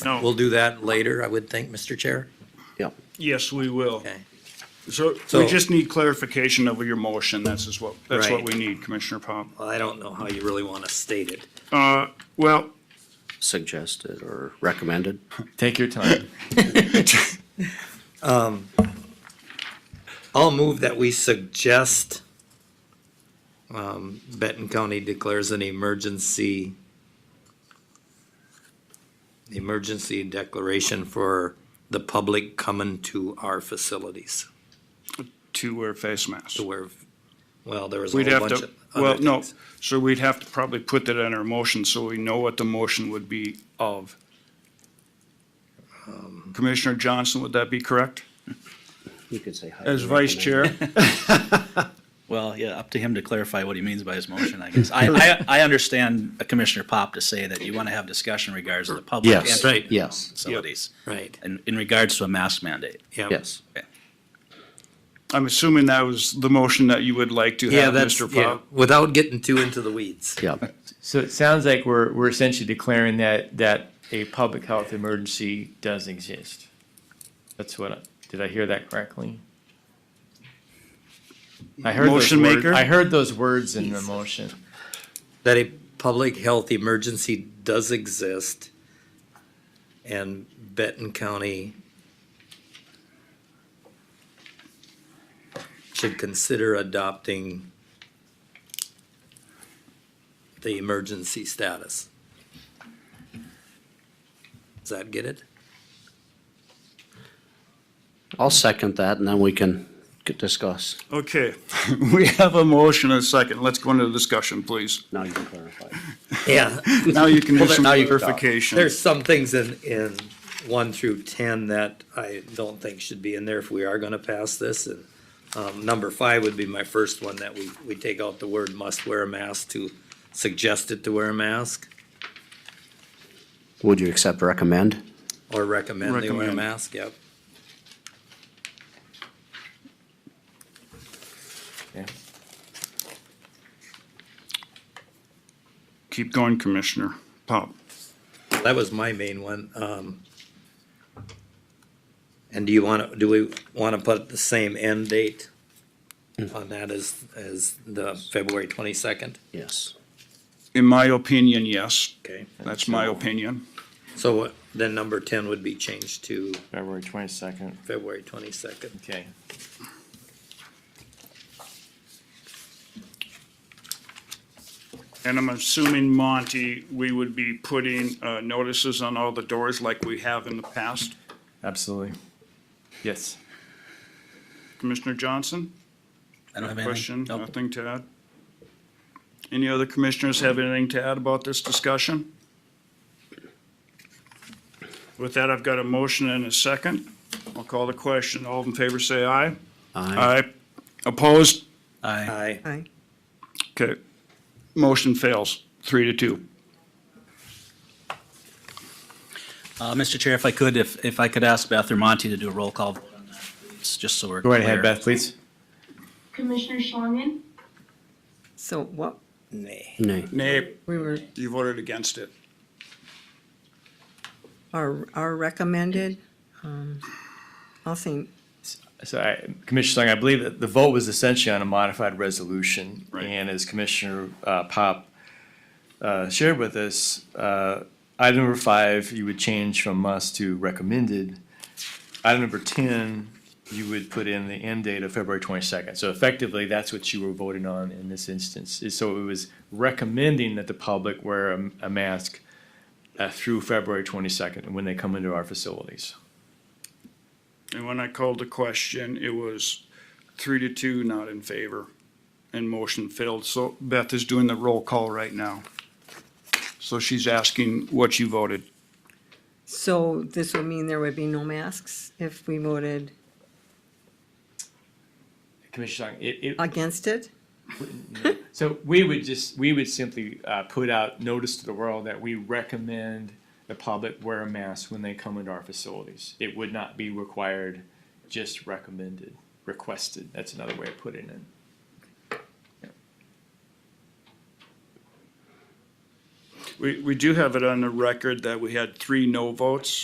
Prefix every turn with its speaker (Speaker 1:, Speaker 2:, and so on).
Speaker 1: No,
Speaker 2: We'll do that later, I would think, Mr. Chair.
Speaker 3: Yeah.
Speaker 1: yes, we will.
Speaker 2: Okay.
Speaker 1: So we
Speaker 2: So-
Speaker 1: just need clarification of your motion. That's is what, that's what
Speaker 2: Right.
Speaker 1: we need, Commissioner Pop.
Speaker 2: Well, I don't know how you really want to state it.
Speaker 1: Uh, well,
Speaker 3: Suggested or recommended?
Speaker 4: Take your time.
Speaker 2: I'll move that we suggest um, Benton County declares an emergency, emergency declaration for the public coming to our facilities
Speaker 1: to wear face masks.
Speaker 2: to where, well, there was a
Speaker 1: We'd
Speaker 2: whole
Speaker 1: have
Speaker 2: bunch
Speaker 1: to,
Speaker 2: of
Speaker 1: well,
Speaker 2: other
Speaker 1: no,
Speaker 2: things.
Speaker 1: so we'd have to probably put that in our motion so we know what the motion would be of.
Speaker 2: Um,
Speaker 1: Commissioner Johnson, would that be correct?
Speaker 3: You could say. highly
Speaker 1: As vice
Speaker 3: recommended.
Speaker 1: chair?
Speaker 5: Well, yeah, up to him to clarify what he means by his motion, I guess. I, I, I understand Commissioner Pop to say that you want to have discussion regards to the public
Speaker 3: Yes.
Speaker 5: and
Speaker 2: Right.
Speaker 3: Yes,
Speaker 5: facilities,
Speaker 2: Right,
Speaker 5: and in regards to a mask mandate.
Speaker 2: yeah.
Speaker 3: yes.
Speaker 1: I'm assuming that was the motion that you would like to
Speaker 2: Yeah,
Speaker 1: have,
Speaker 2: that's,
Speaker 1: Mr.
Speaker 2: yeah,
Speaker 1: Pop.
Speaker 2: without getting too into the weeds.
Speaker 3: Yeah,
Speaker 4: So it sounds like we're, we're essentially declaring that, that a public health emergency does exist. That's what, I did I hear that correctly? I heard those
Speaker 1: Motion
Speaker 4: words,
Speaker 1: maker?
Speaker 4: I heard those words in the motion.
Speaker 2: that a public health emergency does exist and Benton County should consider adopting the emergency status. Does that get it?
Speaker 3: I'll second that and then we can c- discuss.
Speaker 1: Okay, we have a motion and a second. Let's go into the discussion, please.
Speaker 3: Now you can clarify.
Speaker 2: Yeah.
Speaker 1: Now you can do
Speaker 2: Well, there-
Speaker 1: some
Speaker 2: now you-
Speaker 1: clarification.
Speaker 2: There's some things in, in one through ten that I don't think should be in there if we are gonna pass this. And, um, number five would be my first one, that we, we take out the word must wear a mask to suggest it to wear a mask
Speaker 3: Would you accept recommend?
Speaker 2: or recommend they wear a
Speaker 1: Recommend.
Speaker 2: mask, yep.
Speaker 1: Keep going, Commissioner Pop.
Speaker 2: That was my main one, um. And do you wanna, do we wanna put the same end date on that as, as the February twenty-second?
Speaker 3: Yes.
Speaker 1: In my opinion, yes.
Speaker 2: Okay.
Speaker 1: That's my opinion.
Speaker 2: So what- then number ten would be changed to
Speaker 4: February twenty-second,
Speaker 2: February twenty-second.
Speaker 4: okay.
Speaker 1: And I'm assuming, Monty, we would be putting uh, notices on all the doors like we have in the past.
Speaker 4: Absolutely. Yes.
Speaker 1: Commissioner Johnson?
Speaker 5: I don't have anything.
Speaker 1: Question,
Speaker 5: Nope.
Speaker 1: nothing to add? Any other commissioners have anything to add about this discussion? With that, I've got a motion and a second. I'll call the question. All in favor, say aye.
Speaker 3: Aye.
Speaker 1: Opposed?
Speaker 5: Aye.
Speaker 2: Aye.
Speaker 1: Okay. Motion fails, three to two.
Speaker 5: Uh, Mr. Chair, if I could, if, if I could ask Beth or Monty to do a roll call vote on that, please, just so we're
Speaker 4: Go right ahead,
Speaker 5: clear.
Speaker 4: Beth, please.
Speaker 6: Commissioner Schlangen?
Speaker 7: So what,
Speaker 2: Nay.
Speaker 3: Nay.
Speaker 1: Nay,
Speaker 7: we were,
Speaker 1: you voted against it.
Speaker 7: are, are recommended, um, I'll say,
Speaker 4: So I, Commissioner Song, I believe that the vote was essentially on a modified resolution.
Speaker 1: Right.
Speaker 4: And as Commissioner uh, Pop uh, shared with us, uh, item number five, you would change from must to recommended. Item number 10, you would put in the end date of February 22nd. So effectively, that's what you were voting on in this instance. Is- So it was recommending that the public wear a- a mask uh, through February 22nd when they come into our facilities.
Speaker 1: And when I called the question, it was three to two, not in favor, and motion failed. So Beth is doing the roll call right now. So she's asking what you voted.
Speaker 7: so this would mean there would be no masks if we voted
Speaker 4: Commissioner Song, it- it,
Speaker 7: against it?
Speaker 4: So we would just, we would simply uh, put out notice to the world that we recommend the public wear a mask when they come into our facilities. It would not be required, just recommended, requested. That's another way of putting it.
Speaker 1: We, we do have it on the record that we had three no votes.